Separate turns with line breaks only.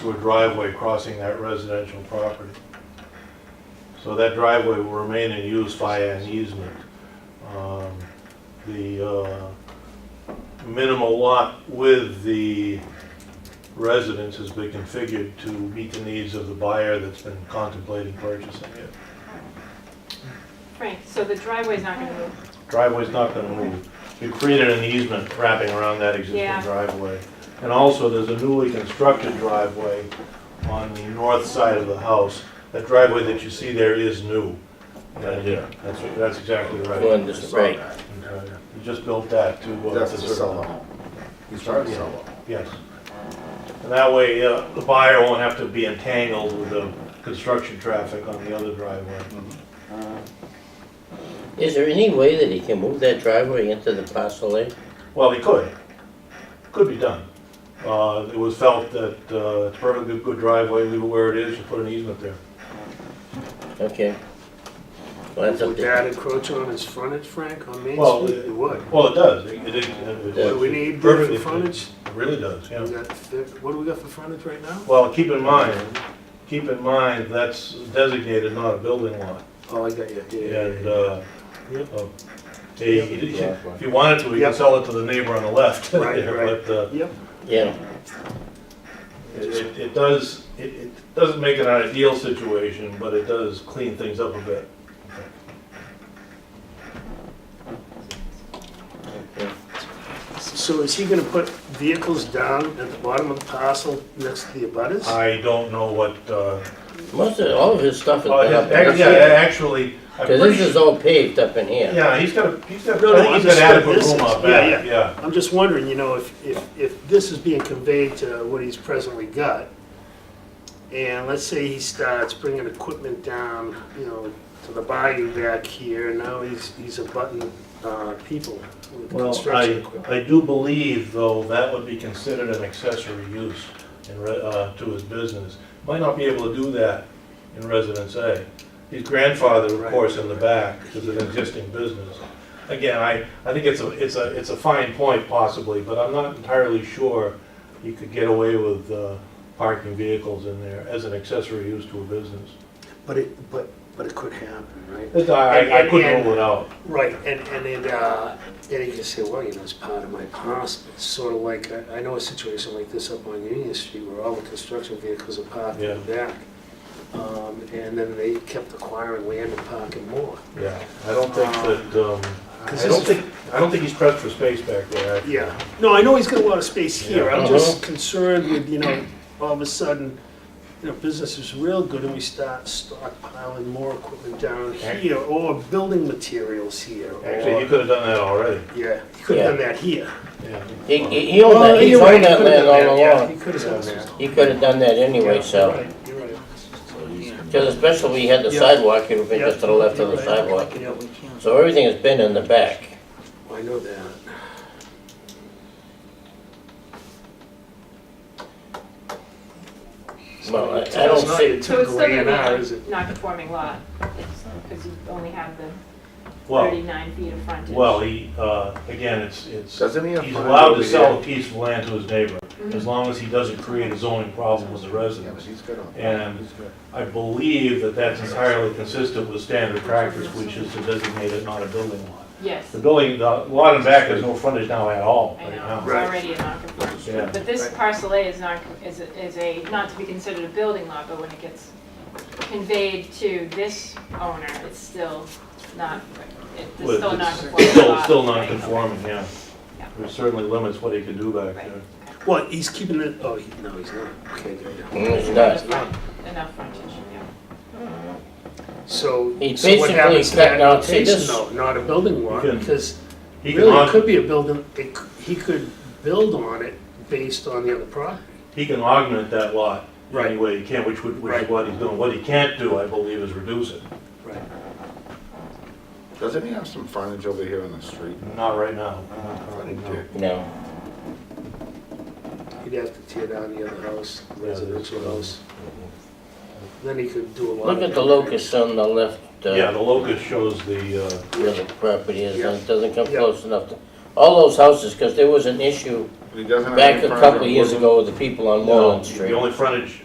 to a driveway crossing that residential property. So that driveway will remain in use via an easement. Um, The uh, minimal lot with the residence has been configured to meet the needs of the buyer that's been contemplating purchasing it.
Frank, so the driveway's not gonna move?
Driveway's not gonna move. We've created an easement wrapping around that existing
Yeah.
driveway. And also, there's a newly constructed driveway on the north side of the house. That driveway that you see there is new.
Right here.
That's, that's exactly right.
One, just right.
Okay. You just built that to. uh,
That's
to
to
serve-
sell the home. He's trying to sell the home.
Yes. And that way, uh, the buyer won't have to be entangled with the construction traffic on the other driveway.
Is there any way that he can move that driveway into the parcel A?
Well, he could. Could be done. Uh, It was felt that uh, it's perfectly good driveway, leave it where it is, you put an easement there.
Okay. Well, that's up
Would
to
that encroach on his frontage, Frank, on Main
Well,
Street? It would.
Well, it does. It- it is- it-
Yeah.
Do
it-
we need
perfectly
the frontage?
It really does, yeah.
We got fif- What do we got for frontage right now?
Well, keep in mind, keep in mind, that's designated not a building lot.
Oh, I got you, yeah, yeah,
And
yeah,
uh, uh, a- if you wanted to, you
Yep.
could sell it to the neighbor on the left.
Right, right.
But uh,
yeah. Yep,
Yeah,
It, it- it does, it, it doesn't make it an ideal situation, but it does clean things up a bit.
okay.
so is he gonna put vehicles down at the bottom of the parcel next to the abutters?
I don't know what, uh,
Most of, all of his stuff is
oh,
done
his-
up
ac-
in
yeah,
here.
actually, I'm
Cause
pretty
this
sure,
is all paved up in here.
yeah, he's got, a- he's got,
No,
I
no,
think he's got
understood.
adequate
This is-
room up
yeah,
back,
yeah.
yeah.
I'm just wondering, you know, if, if, if this is being conveyed to what he's presently got, and let's say he starts bringing equipment down, you know, to the bayou back here, and now he's, he's abutting, uh, people with
Well,
construction
I,
equipment.
I do believe, though, that would be considered an accessory use in, re- uh, to his business. Might not be able to do that in Residence A. His grandfather, of
Right.
course, in the back, is an existing business. Again, I, I think it's a, it's a, it's a fine point possibly, but I'm not entirely sure you could get away with, uh, parking vehicles in there as an accessory use to a business.
But it, but, but it could happen, right?
It's- I, I couldn't rule it out.
Right, and, and then, uh, and you can say, well, you know, it's part of my past, it's sort of like, I, I know a situation like this up on Union Street where all the construction vehicles are parked in the back. Um, and then they kept acquiring land and parking more.
Yeah, I don't think
Uh,
that, um, I
'Cause
don't
this is-
think, I don't think he's pressed for space back there. actually.
Yeah, no, I know he's got a lot of space here,
Yeah.
I'm just concerned with, you know, all of a sudden, you know, business is real good and we start stockpiling more equipment down here, or building materials here,
Actually, he
or,
could have done that already.
yeah, he could have done that here.
Yeah.
He, he he owned
Well,
that, he
you're right,
owned
he
that
could've
land
done
all
that, yeah,
along.
He could have done that.
He could've done that anyway, so.
You're right, you're right.
Cause especially we had the
Yeah.
sidewalk, it would've been
Yeah.
just to the left of the
Right.
sidewalk.
Yeah,
So everything has been in the back.
I know that.
Well, I- I don't
It's not
see-
your
So it's
typical
still gonna
A&R, is
be
it?
a non-conforming lot, because you only have the
Well,
thirty-nine feet of frontage.
well, he, uh, again, it's, it's, he's
Doesn't he have? frontage
allowed
over
to sell a
here?
piece of land to his neighbor,
Mm-hmm.
as long as he doesn't create a zoning problem with the
Yeah, but
residents.
he's good on.
And-
He's good.
I believe that that's entirely consistent with standard practice, which is to designate it not a building lot.
Yes,
The building, the lot in back has no frontage now at all,
I
right
know, it's
now.
Right.
already a
Yeah.
non-conforming. But this
Right.
parcel A is not, is, a- is a, not to be considered a building lot, but when it gets conveyed to this owner, it's still not, it's
Well,
still
it's
non-conforming
Still,
lot.
still
Right, okay.
non-conforming, yeah.
Yeah.
It certainly limits what he can do back
Right.
there.
Well, he's keeping it, oh, he- no, he's not. Okay, there you go.
Mm, It's not.
Enough front- Enough frontage, yeah.
So,
He
so what
basically
happens to that
cut out- see,
application
this-
though? Not a building lot,
He can-
because
He can,
really it
aug-
could be a building, it c- he could build on it based on the other property.
he can augment that lot
Right.
anyway he can, which would, which is
Right.
what he's doing. What he can't do, I believe, is reduce it.
Right.
Doesn't he have some frontage over here on the street?
Not right now.
Frontage.
No.
He'd have to tear down the other house,
Yeah,
residential
that's-
house. Then he could do a lot.
Look
of
at the
that.
locus on the left,
Yeah,
uh,
the locus shows the, uh,
where the property is, and it doesn't come
Yeah.
close enough to, all those houses, because there was an issue
He doesn't have any
back a
frontage on
couple of years
Woodland.
ago with the people on Moreland
The
Street.
only frontage